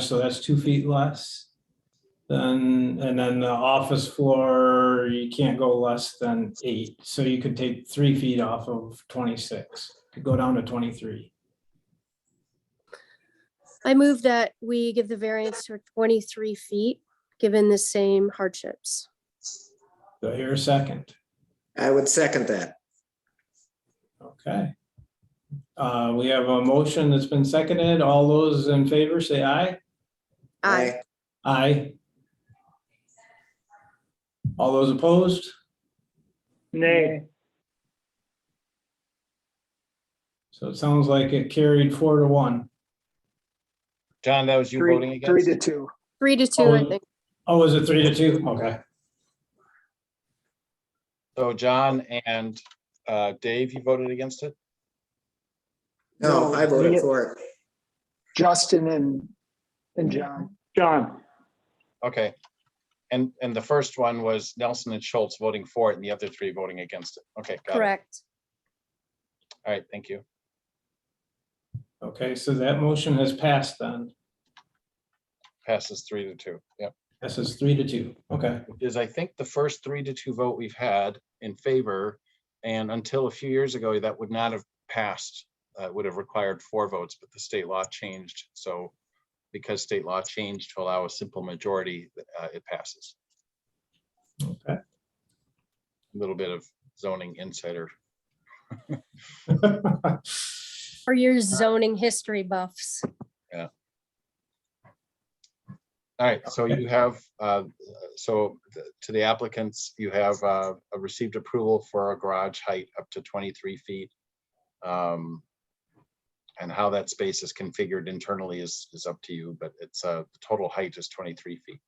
so that's two feet less. Then, and then the office floor, you can't go less than eight, so you could take three feet off of twenty-six, could go down to twenty-three. I move that we give the variance for 23 feet, given the same hardships. Do I hear a second? I would second that. Okay. Uh, we have a motion that's been seconded. All those in favor, say aye. Aye. Aye. All those opposed? Nay. So it sounds like it carried four to one. John, that was you voting Three, three against? to two. Three to two, I Oh. think. Oh, was it three to two? Okay. So John and uh, Dave, you voted against it? No, I voted for it. Justin and, and John. John. Okay. And, and the first one was Nelson and Schultz voting for it and the other three voting against it. Okay, got it. Correct. All right, thank you. Okay, so that motion has passed then. Passes three to two. Yep. This is three to two. Okay. Is I think the first three to two vote we've had in favor. And until a few years ago, that would not have passed, uh, would have required four votes, but the state law changed. So because state law changed to allow a simple majority, uh, it passes. Okay. A little bit of zoning insider For your zoning history buffs. All right, so Okay. you have, uh, so th- to the applicants, you have uh, uh, received approval for a garage height up to 23 feet. Um, And how that space is configured internally is, is up to you, but it's, uh, the total height is 23 feet.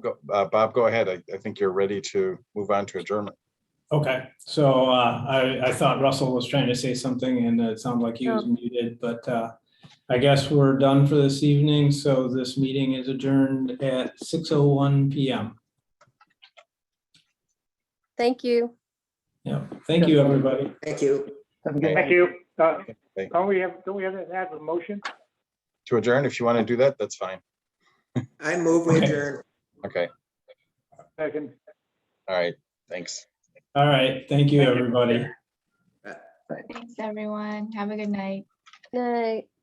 Go, uh, Bob, go ahead. I I think you're ready to move on to adjournment. Okay, so uh, I, I thought Russell was trying to say something and it sounded like he was muted, but uh, I guess we're done for this evening. So this meeting is adjourned at 6:01 PM. Thank you. Yeah, thank you, everybody. Thank you. Have a good Thank night. you. Uh, Thank- Don't we have, don't we have to have a motion? to adjourn. If you want to do that, that's fine. I move we adjourn. Okay, Second. all right, thanks. All right, thank you, everybody. Thanks, everyone. Have a good night. Night.